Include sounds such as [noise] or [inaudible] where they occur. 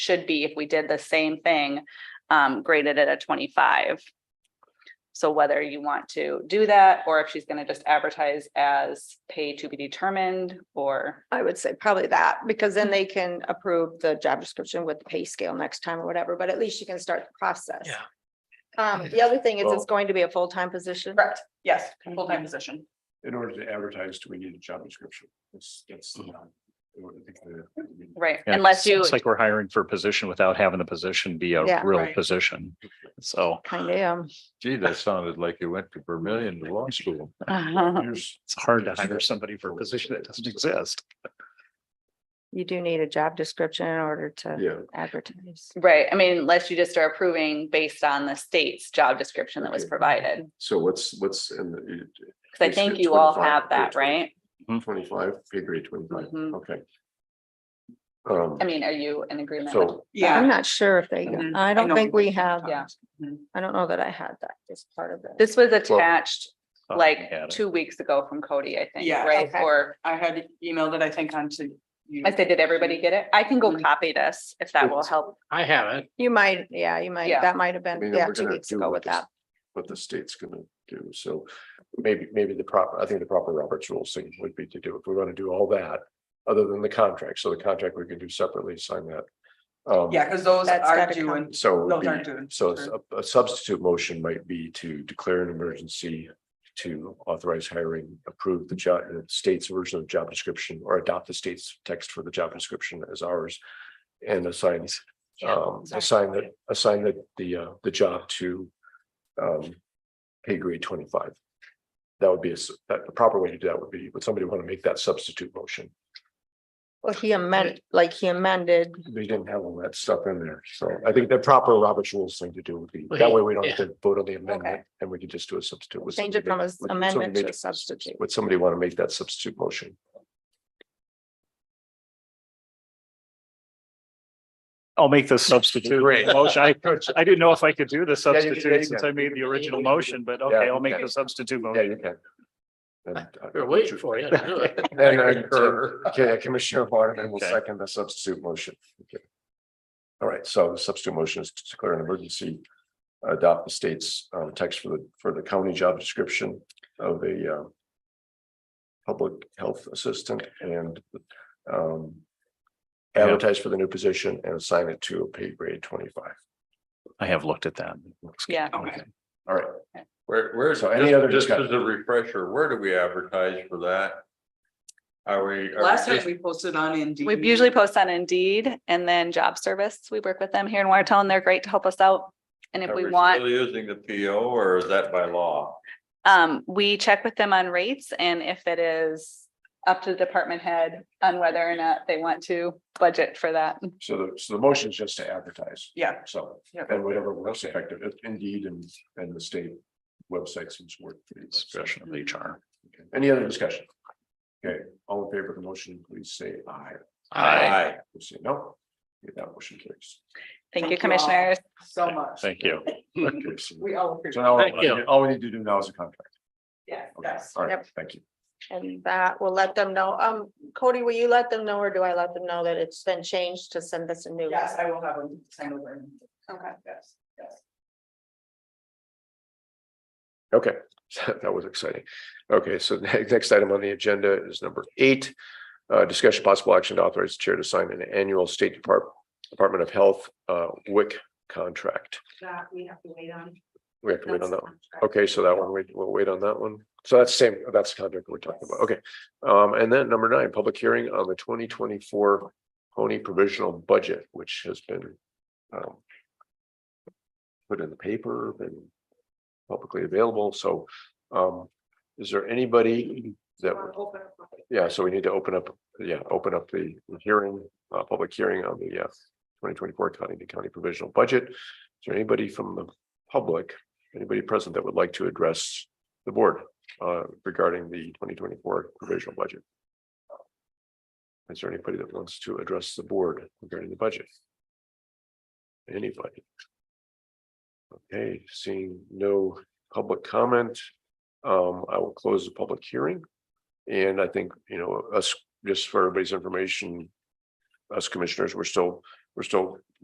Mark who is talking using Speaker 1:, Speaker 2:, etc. Speaker 1: should be if we did the same thing, um, graded at a twenty-five. So whether you want to do that, or if she's gonna just advertise as pay to be determined, or,
Speaker 2: I would say probably that, because then they can approve the job description with the pay scale next time or whatever, but at least you can start the process.
Speaker 3: Yeah.
Speaker 2: Um, the other thing is
Speaker 4: Well-
Speaker 2: it's going to be a full-time position.
Speaker 1: Correct. yes, full-time position.
Speaker 4: In order to advertise, do we need a job description? That's, that's. um, in order to think of it.
Speaker 1: Right,
Speaker 5: Yeah,
Speaker 1: unless
Speaker 5: it's-
Speaker 1: you, [laughs]
Speaker 5: It's like we're hiring for a position without having the position be
Speaker 2: Yeah.
Speaker 5: a real
Speaker 1: Right.
Speaker 5: position. So
Speaker 2: Kind of, um,
Speaker 6: Gee, that sounded like you went to Vermillion to law school.
Speaker 4: Here's,
Speaker 5: it's hard to hire somebody for a position that doesn't exist.
Speaker 2: you do need a job description in order to
Speaker 4: yeah,
Speaker 2: advertise.
Speaker 1: right, I mean, unless you just are approving based on the state's job description that was
Speaker 4: Okay.
Speaker 1: provided.
Speaker 4: so what's, what's in the
Speaker 1: Cause I
Speaker 4: Basically
Speaker 1: think you all
Speaker 4: 25,
Speaker 1: have that,
Speaker 4: yeah,
Speaker 1: right?
Speaker 4: twenty-five, pay grade twenty-five,
Speaker 1: Mhm.
Speaker 4: okay. Um,
Speaker 1: I mean, are you in agreement? with-
Speaker 4: so,
Speaker 2: I'm not sure if they,
Speaker 1: Mhm.
Speaker 2: I don't think we have,
Speaker 5: uh,
Speaker 1: Yeah.
Speaker 2: I don't know that I had that as part of it.
Speaker 1: This was attached
Speaker 5: Oh, I
Speaker 1: like
Speaker 5: had it.
Speaker 1: two weeks ago from Cody, I think,
Speaker 7: Yeah.
Speaker 1: right?
Speaker 2: Okay.
Speaker 1: Or
Speaker 7: I had emailed it, I think, onto you.
Speaker 1: I said, did everybody get it? I can go
Speaker 7: Mm-hmm.
Speaker 1: copy this if that will help.
Speaker 3: I have it.
Speaker 2: You might, yeah, you might,
Speaker 1: Yeah.
Speaker 2: that might have
Speaker 4: I mean,
Speaker 2: been,
Speaker 4: we're
Speaker 2: yeah, two
Speaker 4: gonna
Speaker 2: weeks
Speaker 4: do
Speaker 2: ago
Speaker 4: what
Speaker 2: with
Speaker 4: the-
Speaker 2: that.
Speaker 4: What the state's gonna do, so maybe, maybe the proper, I think the proper Roberts rules thing would be to do, if we want to do all that. Other than the contract, so the contract we can do separately, sign that. Um,
Speaker 7: Yeah, because those
Speaker 2: That's
Speaker 7: are
Speaker 2: gotta
Speaker 7: due
Speaker 2: come.
Speaker 7: in
Speaker 4: So. it would
Speaker 7: Those
Speaker 4: be-
Speaker 7: aren't doing.
Speaker 4: So a- a substitute motion might be to declare an emergency to authorize hiring, approve the job, the state's version of job description or adopt the state's text for the job description as ours. And assign, um, assign that, assign that the, uh, the job to, um, pay grade twenty-five. That would be, a s- that the proper way to do that would be, would somebody want to make that substitute motion?
Speaker 2: Well, he amended, like he amended,
Speaker 4: They didn't have all that stuff in there, so I think the proper Robert's rules thing to do would be, that way we don't have to vote on the amendment, and we could just do a substitute. Would
Speaker 2: change it from
Speaker 4: somebody
Speaker 2: an
Speaker 4: make- would- would somebody
Speaker 2: amendment to
Speaker 4: make-
Speaker 2: a substitute.
Speaker 4: Would somebody want to make that substitute motion?
Speaker 5: I'll make the substitute [laughs] motion. I, I didn't know if I could do the
Speaker 4: you can- yeah, you
Speaker 5: substitute since
Speaker 4: can.
Speaker 5: I made the original
Speaker 4: you can do
Speaker 5: motion, but
Speaker 4: Yeah,
Speaker 5: okay,
Speaker 4: you
Speaker 5: I'll make
Speaker 4: can.
Speaker 5: the substitute
Speaker 4: Yeah,
Speaker 5: motion.
Speaker 4: you can. And, uh,
Speaker 3: We're waiting for
Speaker 4: [laughs]
Speaker 5: [laughs]
Speaker 3: you. to do it.
Speaker 4: And then,
Speaker 3: Concur.
Speaker 4: okay, uh, Commissioner Waterman will
Speaker 5: Okay.
Speaker 4: second the substitute motion. Okay. All right, so the substitute motion is to declare an emergency. Adopt the state's uh text for the for the county job description of a uh. Public health assistant and um.
Speaker 5: Yeah.
Speaker 4: Advertise for the new position and assign it to a pay grade twenty five.
Speaker 5: I have looked at that.
Speaker 1: Yeah.
Speaker 7: Okay.
Speaker 4: All right,
Speaker 6: Where, where's,
Speaker 4: So any other
Speaker 6: just
Speaker 4: discussion?
Speaker 6: as a refresher, where do we advertise for that? Are we? are we
Speaker 7: Last time
Speaker 6: just-
Speaker 7: we posted on Indeed.
Speaker 1: We usually post on Indeed and then Job Service. We work with them here in Watertown. They're great to help us out. And if
Speaker 6: are
Speaker 1: we
Speaker 6: still
Speaker 1: want,
Speaker 6: Using the PO or is that by law?
Speaker 1: um, we check with them on rates and if it is up to the department head on whether or not they want to budget for that.
Speaker 4: so the so the motion is just to advertise,
Speaker 7: Yeah.
Speaker 4: so
Speaker 7: yeah.
Speaker 4: and whatever works effective, indeed, and and the state website seems to work pretty well. So-
Speaker 5: Discretion of HR.
Speaker 4: Okay, Any other discussion? Okay, all in favor of the motion, please say aye.
Speaker 3: I,
Speaker 4: If you say no, okay, that motion carries.
Speaker 1: Thank
Speaker 7: Thank you all.
Speaker 1: you, commissioners.
Speaker 7: So much.
Speaker 5: Thank you.
Speaker 4: Okay, so-
Speaker 7: We all appreciate
Speaker 4: So
Speaker 7: it.
Speaker 4: now, all
Speaker 3: Thank you.
Speaker 4: all we need to do now is a contract.
Speaker 7: Yeah,
Speaker 4: Okay,
Speaker 7: yes.
Speaker 4: All right,
Speaker 2: Yep.
Speaker 4: thank you.
Speaker 2: And that will let them know. Um, Cody, will you let them know or do I let them know that it's been changed to send us a new?
Speaker 7: Yes, I will have them send over.
Speaker 1: Okay.
Speaker 7: Yes, yes.
Speaker 4: Okay, [laughs] that was exciting. Okay, so [laughs] the next item on the agenda is number eight. Uh, discussion possible action to authorize the chair to sign an annual State Department, Department of Health, uh, WIC contract.
Speaker 8: that we have to wait on.
Speaker 4: We have to wait on
Speaker 8: That's
Speaker 4: that one.
Speaker 8: the contract.
Speaker 4: Okay, so that one, we- we'll wait on that one. So that's same, that's the contract we're talking about. Okay. Um, and then number nine, public hearing on the twenty twenty-four pony provisional budget, which has been um put in the paper, been publicly available. So um, is there anybody that,
Speaker 8: Wanna open up public
Speaker 4: yeah, so we need to open up, yeah, open up the hearing, uh, public hearing on the uh twenty twenty-four Cottington County provisional budget. Is there anybody from the public, anybody present that would like to address the board uh regarding the twenty twenty-four provisional budget? Is there anybody that wants to address the board regarding the budget? Anybody? Okay, seeing no public comment, um, I will close the public hearing. And I think, you know, us, just for everybody's information, us commissioners, we're still we're still